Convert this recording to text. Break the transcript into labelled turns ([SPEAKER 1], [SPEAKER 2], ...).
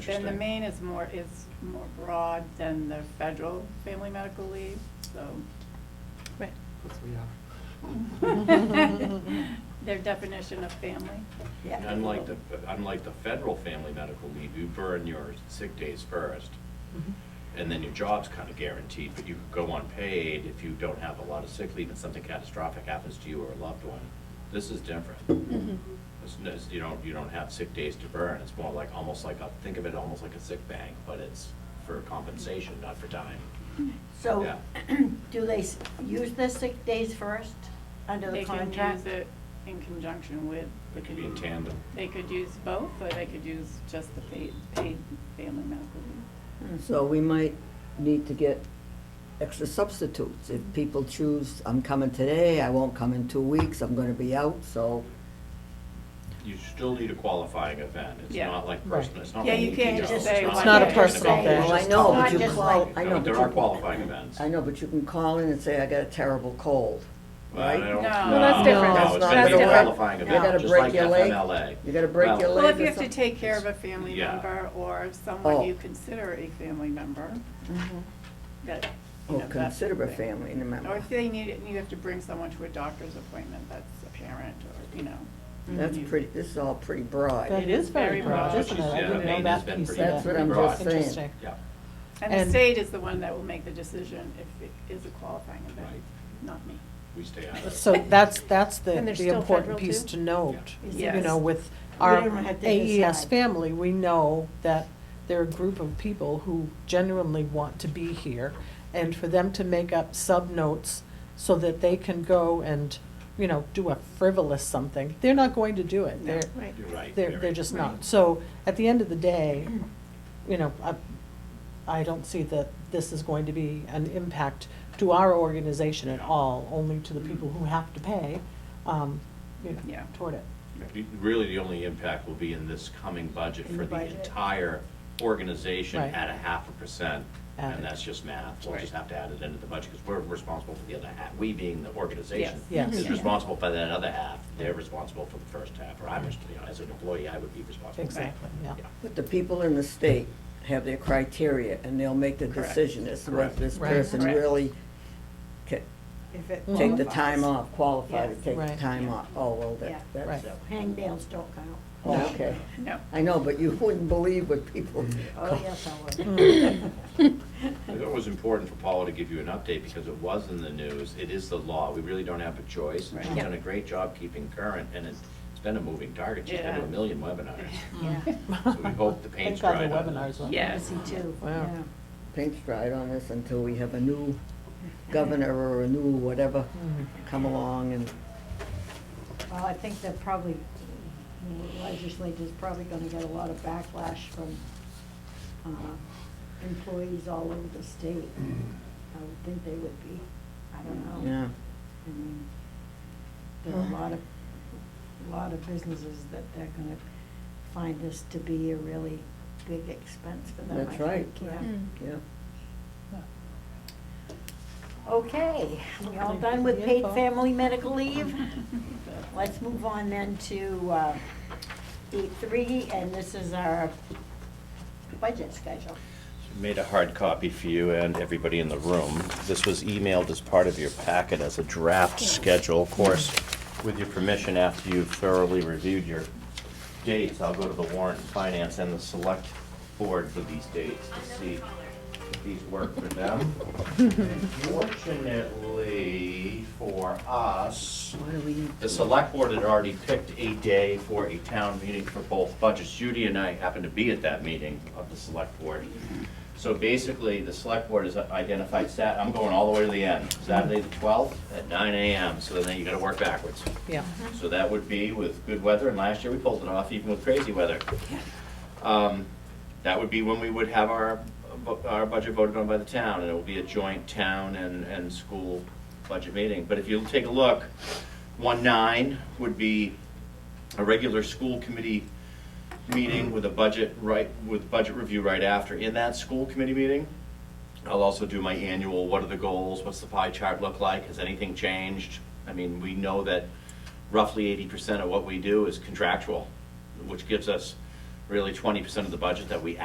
[SPEAKER 1] And the
[SPEAKER 2] Interesting.
[SPEAKER 1] main is more, is more broad than the federal family medical leave, so
[SPEAKER 3] Right.
[SPEAKER 2] Yes, we are.
[SPEAKER 1] their definition of family.
[SPEAKER 3] Yeah.
[SPEAKER 4] Unlike the, unlike the federal family medical leave, you burn your sick days first, and then your job's kind of guaranteed, but you could go unpaid if you don't have a lot of sick leave and something catastrophic happens to you or a loved one. This is different. It's, no- it's- you don't, you don't have sick days to burn, it's more like, almost like, a think of it almost like a sick bank, but it's for compensation, not for time.
[SPEAKER 3] So, Oh.
[SPEAKER 4] Yeah.
[SPEAKER 3] do they s- use the sick days first under the
[SPEAKER 1] They can
[SPEAKER 3] contract?
[SPEAKER 1] use it in conjunction with.
[SPEAKER 4] It could be in tandem.
[SPEAKER 1] They could use both, or they could use just the paid, paid family medical leave.
[SPEAKER 5] So we might need to get extra substitutes. If people choose, I'm coming today, I won't come in two weeks, I'm gonna be out, so,
[SPEAKER 4] You still need a qualifying event, it's
[SPEAKER 1] Yeah.
[SPEAKER 4] not like personal, it's not
[SPEAKER 1] Yeah,
[SPEAKER 4] like.
[SPEAKER 1] you can't
[SPEAKER 4] ego,
[SPEAKER 1] just say
[SPEAKER 3] It's not a
[SPEAKER 4] like-
[SPEAKER 3] personal
[SPEAKER 4] it's
[SPEAKER 3] thing.
[SPEAKER 5] well, I
[SPEAKER 3] just
[SPEAKER 5] know,
[SPEAKER 3] call-
[SPEAKER 5] but
[SPEAKER 3] not
[SPEAKER 5] you
[SPEAKER 3] just
[SPEAKER 5] call,
[SPEAKER 3] like-
[SPEAKER 5] I
[SPEAKER 4] No,
[SPEAKER 5] know, but
[SPEAKER 4] there
[SPEAKER 5] you
[SPEAKER 4] are
[SPEAKER 5] can-
[SPEAKER 4] qualifying events.
[SPEAKER 5] I know, but you can call in and say, I got a terrible cold,
[SPEAKER 4] Well, I
[SPEAKER 5] right?
[SPEAKER 4] don't- no,
[SPEAKER 1] No. Well, that's different.
[SPEAKER 4] No,
[SPEAKER 5] That's
[SPEAKER 4] it's
[SPEAKER 5] not
[SPEAKER 4] gonna be
[SPEAKER 5] gonna
[SPEAKER 4] a
[SPEAKER 5] work.
[SPEAKER 4] qualifying
[SPEAKER 3] You
[SPEAKER 4] event,
[SPEAKER 5] gotta
[SPEAKER 4] just
[SPEAKER 5] break
[SPEAKER 4] like
[SPEAKER 5] your leg.
[SPEAKER 4] FMLA.
[SPEAKER 5] You gotta break
[SPEAKER 4] Well,
[SPEAKER 5] your
[SPEAKER 1] Well,
[SPEAKER 5] leg.
[SPEAKER 1] if you
[SPEAKER 5] or
[SPEAKER 1] have to
[SPEAKER 5] something.
[SPEAKER 1] take care of a family
[SPEAKER 4] Yeah.
[SPEAKER 1] member or someone
[SPEAKER 5] Oh.
[SPEAKER 1] you consider a family member, that, you know,
[SPEAKER 5] Or
[SPEAKER 1] that's.
[SPEAKER 5] consider a
[SPEAKER 1] something.
[SPEAKER 5] family
[SPEAKER 1] Or
[SPEAKER 5] member.
[SPEAKER 1] if they need it, and you have to bring someone to a doctor's appointment, that's a parent, or, you know.
[SPEAKER 5] That's
[SPEAKER 1] you-
[SPEAKER 5] pretty, this is all pretty broad.
[SPEAKER 6] That is
[SPEAKER 1] Very
[SPEAKER 6] very broad,
[SPEAKER 1] broad.
[SPEAKER 6] isn't it?
[SPEAKER 4] Which is,
[SPEAKER 6] I
[SPEAKER 4] yeah,
[SPEAKER 6] didn't know
[SPEAKER 4] Maine has
[SPEAKER 6] that
[SPEAKER 4] been
[SPEAKER 6] piece of
[SPEAKER 4] pretty-
[SPEAKER 6] that.
[SPEAKER 5] That's what I'm
[SPEAKER 4] Broad.
[SPEAKER 5] just saying.
[SPEAKER 6] Interesting.
[SPEAKER 4] Yeah,
[SPEAKER 1] And the
[SPEAKER 6] And-
[SPEAKER 1] state is the one that will make the decision if it is a qualifying event,
[SPEAKER 4] Right.
[SPEAKER 1] not me.
[SPEAKER 4] we stay out of it.
[SPEAKER 6] So that's, that's the,
[SPEAKER 3] And they're
[SPEAKER 6] the
[SPEAKER 3] still
[SPEAKER 6] important
[SPEAKER 3] federal,
[SPEAKER 6] piece
[SPEAKER 3] too?
[SPEAKER 6] to note.
[SPEAKER 1] Yeah.
[SPEAKER 6] You know,
[SPEAKER 1] Yes.
[SPEAKER 6] with
[SPEAKER 3] We
[SPEAKER 6] our
[SPEAKER 3] don't have to
[SPEAKER 6] AES
[SPEAKER 3] decide.
[SPEAKER 6] family, we know that they're a group of people who genuinely want to be here. And for them to make up sub-notes so that they can go and, you know, do a frivolous something, they're not going to do it.
[SPEAKER 1] No.
[SPEAKER 6] They're,
[SPEAKER 3] Right.
[SPEAKER 4] You're right.
[SPEAKER 6] They're,
[SPEAKER 4] Mary.
[SPEAKER 6] they're just
[SPEAKER 1] Right.
[SPEAKER 6] not. So at the end of the day, you know, I, I don't see that this is going to be an impact to our organization at all, only to the people who have to pay, um, you
[SPEAKER 1] Yeah.
[SPEAKER 6] know, toward it.
[SPEAKER 4] You- Really, the only impact will be in this coming budget
[SPEAKER 3] In
[SPEAKER 4] for
[SPEAKER 3] the
[SPEAKER 4] the
[SPEAKER 3] budget.
[SPEAKER 4] entire organization
[SPEAKER 6] Right.
[SPEAKER 4] at a half a percent.
[SPEAKER 6] Add
[SPEAKER 4] And
[SPEAKER 6] it.
[SPEAKER 4] that's just math. We'll just
[SPEAKER 1] Right.
[SPEAKER 4] have to add it into the budget because we're responsible for the other half. We being the organization
[SPEAKER 6] Yes.
[SPEAKER 4] is
[SPEAKER 6] Yes.
[SPEAKER 4] responsible for that other half. They're responsible for the first half, or I'm, res- you know, as an employee, I would be responsible. for that.
[SPEAKER 6] Exactly, yeah.
[SPEAKER 4] Yeah.
[SPEAKER 5] But the people in the state have their criteria, and they'll make the
[SPEAKER 1] Correct.
[SPEAKER 5] decision as to
[SPEAKER 4] Correct.
[SPEAKER 5] whether this
[SPEAKER 6] Right.
[SPEAKER 5] person
[SPEAKER 1] Correct.
[SPEAKER 5] really ca-
[SPEAKER 3] If it
[SPEAKER 5] take the
[SPEAKER 3] qualifies.
[SPEAKER 5] time off, qualify to
[SPEAKER 3] Yes.
[SPEAKER 5] take the
[SPEAKER 6] Right.
[SPEAKER 5] time
[SPEAKER 1] Yeah.
[SPEAKER 5] off. Oh, well,
[SPEAKER 3] Yeah.
[SPEAKER 5] that, that's,
[SPEAKER 6] Right.
[SPEAKER 3] Hangnails don't count.
[SPEAKER 5] oh, okay.
[SPEAKER 1] No.
[SPEAKER 5] I know, but you wouldn't believe what people,
[SPEAKER 3] Oh, yes, I would.
[SPEAKER 4] I thought it was important for Paula to give you an update because it was in the news. It is the law. We really don't have a choice.
[SPEAKER 1] Right.
[SPEAKER 4] She's
[SPEAKER 1] Yeah.
[SPEAKER 4] done a great job keeping current and it's, it's been a moving target. She's been to
[SPEAKER 1] Yeah.
[SPEAKER 4] a million webinars.
[SPEAKER 3] Yeah,
[SPEAKER 4] So we hope the paint's
[SPEAKER 6] Thank God the
[SPEAKER 4] dried on
[SPEAKER 6] webinars
[SPEAKER 4] this.
[SPEAKER 6] went.
[SPEAKER 1] Yeah.
[SPEAKER 3] yes, he too,
[SPEAKER 6] Wow.
[SPEAKER 3] yeah.
[SPEAKER 5] paint stride on this until we have a new governor or a new whatever
[SPEAKER 6] Mm.
[SPEAKER 5] come along and,
[SPEAKER 3] Well, I think that probably, the legislature's probably gonna get a lot of backlash from uh, employees all over the state. I would think they would be, I don't know.
[SPEAKER 5] yeah.
[SPEAKER 3] I mean, There are a lot of, a lot of businesses that they're gonna find this to be a really big expense for them, I
[SPEAKER 5] That's right.
[SPEAKER 3] think, yeah.
[SPEAKER 5] Yeah.
[SPEAKER 3] Okay, we all done with paid family medical leave? Let's move on then to uh, eight three, and this is our budget schedule.
[SPEAKER 4] Made a hard copy for you and everybody in the room. This was emailed as part of your packet as a draft schedule. Of course, with your permission, after you've thoroughly reviewed your dates, I'll go to the warrant and finance and the select board for these dates to see if these work for them. Fortunately for us,
[SPEAKER 5] Why do we need
[SPEAKER 4] the select board had already picked a day for a town meeting for both budgets. Judy and I happened to be at that meeting of the select board. So basically, the select board has identified Sat, I'm going all the way to the end, Saturday the twelfth at nine AM, so then you gotta work backwards.
[SPEAKER 6] Yeah.
[SPEAKER 4] So that would be with good weather, and last year we pulled it off even with crazy weather. Um, That would be when we would have our, bu- our budget voted on by the town, and it will be a joint town and, and school budget meeting. But if you'll take a look, one nine would be a regular school committee meeting with a budget right, with budget review right after. In that school committee meeting, I'll also do my annual, what are the goals, what's the pie chart look like, has anything changed? I mean, we know that roughly eighty percent of what we do is contractual, which gives us really twenty percent of the budget that we